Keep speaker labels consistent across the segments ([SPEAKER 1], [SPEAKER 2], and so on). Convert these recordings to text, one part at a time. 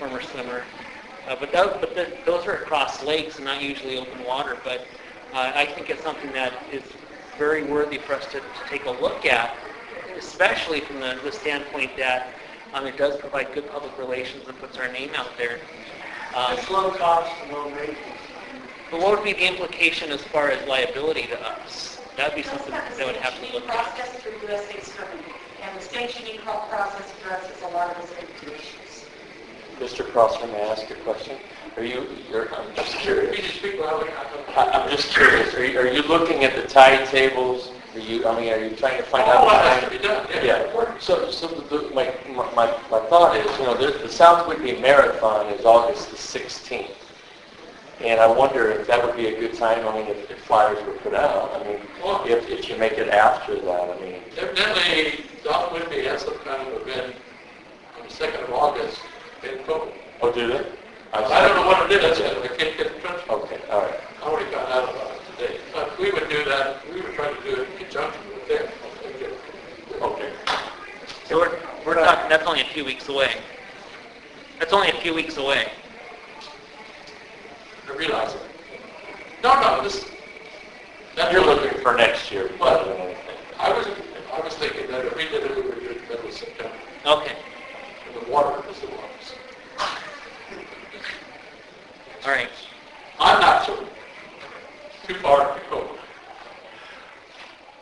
[SPEAKER 1] warmer summer. Uh, but those, but the, those are across lakes, not usually open water. But uh, I think it's something that is very worthy for us to, to take a look at, especially from the, the standpoint that um, it does provide good public relations and puts our name out there. Um,
[SPEAKER 2] It's low cost and low maintenance.
[SPEAKER 1] but what would be the implication as far as liability to us? That would be something that would have to look at.
[SPEAKER 3] Process through U.S. State's company, and the sanctioning process addresses a lot of the safety issues.
[SPEAKER 4] Mr. Crossman, may I ask a question? Are you, you're, I'm just
[SPEAKER 2] You
[SPEAKER 4] curious.
[SPEAKER 2] just speak loud enough.
[SPEAKER 4] I- I'm just curious, are you, are you looking at the tide tables? Are you, I mean, are you trying to find out?
[SPEAKER 2] Oh,
[SPEAKER 4] the
[SPEAKER 2] that
[SPEAKER 4] tide-
[SPEAKER 2] should be done, yeah.
[SPEAKER 4] Yeah, so, so the, my, my, my thought is, you know, the, the South Whitney Marathon is August the 16th. And I wonder if that would be a good time, I mean, if if flyers were put out, I mean,
[SPEAKER 2] Well-
[SPEAKER 4] if, if you make it after that, I mean,
[SPEAKER 2] Evidently, Don Whitby has some kind of event on the 2nd of August in Copeland.
[SPEAKER 4] oh, do they?
[SPEAKER 2] I don't know what it is, I can't get in touch. I
[SPEAKER 4] Okay, all right.
[SPEAKER 2] already found out about it today. But we would do that, we would try to do it in conjunction with them.
[SPEAKER 4] Okay.
[SPEAKER 1] So we're, we're talking, that's only a few weeks away. That's only a few weeks away.
[SPEAKER 2] I realize it. No, no, this, that's
[SPEAKER 4] You're
[SPEAKER 2] what-
[SPEAKER 4] looking for next year,
[SPEAKER 2] Well-
[SPEAKER 4] rather than anything.
[SPEAKER 2] I was, I was thinking that if we did it, we would do it in the middle of September,
[SPEAKER 1] Okay.
[SPEAKER 2] and the water is the waters.
[SPEAKER 1] All right.
[SPEAKER 2] I'm not sure. Too far to go.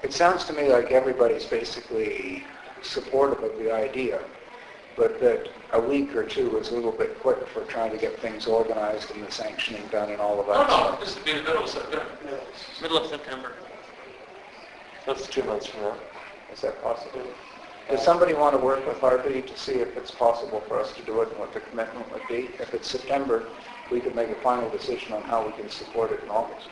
[SPEAKER 5] It sounds to me like everybody's basically supportive of the idea, but that a week or two is a little bit quick for trying to get things organized and the sanctioning done and all of
[SPEAKER 2] No,
[SPEAKER 5] that
[SPEAKER 2] no,
[SPEAKER 5] stuff.
[SPEAKER 2] this would be the middle of September.
[SPEAKER 1] Middle of September.
[SPEAKER 4] That's two months from now.
[SPEAKER 5] Is that possible? Does somebody want to work with RB to see if it's possible for us to do it and what the commitment would be? If it's September, we could make a final decision on how we can support it in August.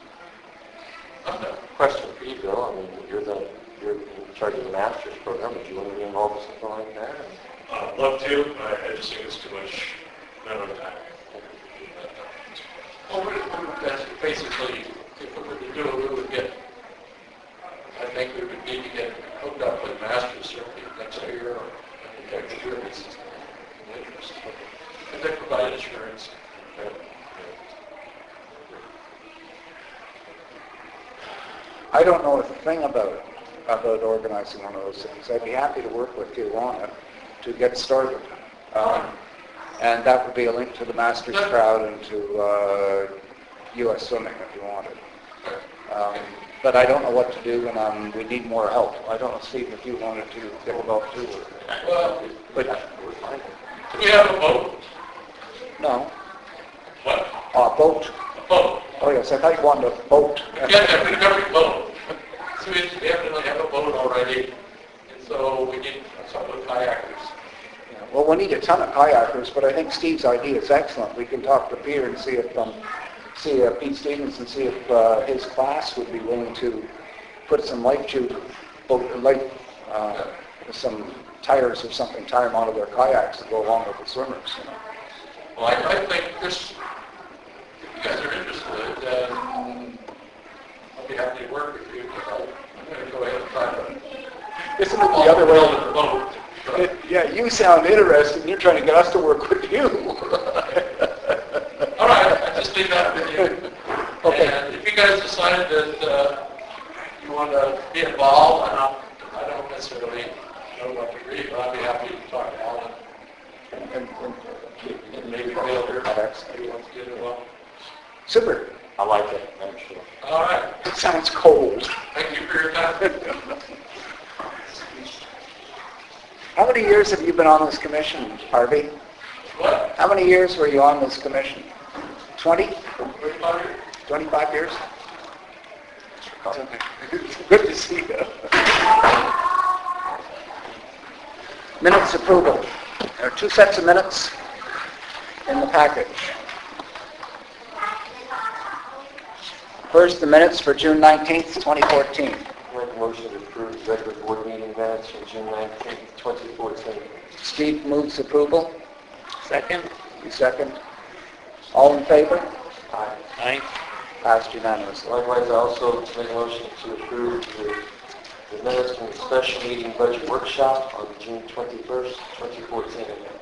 [SPEAKER 2] I'm done.
[SPEAKER 4] Question for you, Bill. I mean, you're the, you're in charge of the master's program. Would you want to be involved in something like that?
[SPEAKER 6] I'd love to, I, I just think it's too much, not enough time.
[SPEAKER 2] Well, we we would bas- basically, if we were to do it, we would get, I think we would need to get hooked up with Masters certainly next year or the next year. It's in interest. And they provide insurance. uh,
[SPEAKER 5] I don't know a thing about it, about organizing one of those things. I'd be happy to work with you on it to get started. Um, and that would be a link to the Masters crowd and to uh, U.S. Swimming if you wanted. Um, but I don't know what to do, and um, we need more help. I don't know, Steve, if you wanted to get involved too. or-
[SPEAKER 2] Well,
[SPEAKER 5] But
[SPEAKER 2] do we have a vote?
[SPEAKER 5] no,
[SPEAKER 2] What?
[SPEAKER 5] uh, boat.
[SPEAKER 2] A vote?
[SPEAKER 5] Oh yes, I thought you wanted a boat.
[SPEAKER 2] Yeah, yeah, we have a vote. So we definitely have a vote already, and so we need some of the kayakers.
[SPEAKER 5] Well, we'll need a ton of kayakers, but I think Steve's idea is excellent. We can talk to Peter and see if, um, see if Pete Stevens and see if, uh, his class would be willing to put some life tube, boat, life, uh, some tires or something, tie them onto their kayaks to go along with the swimmers, you know.
[SPEAKER 2] Well, I, I think this, if you guys are interested, then I'll be happy to work with you. I'm gonna go ahead and try to.
[SPEAKER 5] Isn't it the other
[SPEAKER 2] Build a
[SPEAKER 5] way?
[SPEAKER 2] boat.
[SPEAKER 5] It- Yeah, you sound interested, you're trying to get us to work with you.
[SPEAKER 2] All right, I just leave that with you.
[SPEAKER 5] Okay.
[SPEAKER 2] And if you guys decide that, uh, you wanna be involved, and I'm, I don't necessarily know what degree, but I'd be happy to talk to Alan
[SPEAKER 5] And- and-
[SPEAKER 2] and maybe Bill here.
[SPEAKER 5] Kayaks.
[SPEAKER 2] If you want to get involved.
[SPEAKER 5] Super,
[SPEAKER 4] I like it, I'm sure.
[SPEAKER 2] All right,
[SPEAKER 5] it sounds cold.
[SPEAKER 2] thank you for your time.
[SPEAKER 5] How many years have you been on this commission, Harvey?
[SPEAKER 2] What?
[SPEAKER 5] How many years were you on this commission? 20?
[SPEAKER 2] What about you?
[SPEAKER 5] 25 years? Good to see you. Minutes approval. There are two sets of minutes in the package. First, the minutes for June 19th, 2014.
[SPEAKER 4] Make a motion to approve regular board meeting minutes from June 19th, 2014.
[SPEAKER 5] Steve moves approval.
[SPEAKER 1] Second?
[SPEAKER 5] You second. All in favor?
[SPEAKER 4] Aye.
[SPEAKER 1] Aye.
[SPEAKER 5] Passed unanimously.
[SPEAKER 4] Likewise, I also make a motion to approve the, the minutes from the special meeting budget workshop on June 21st, 2014.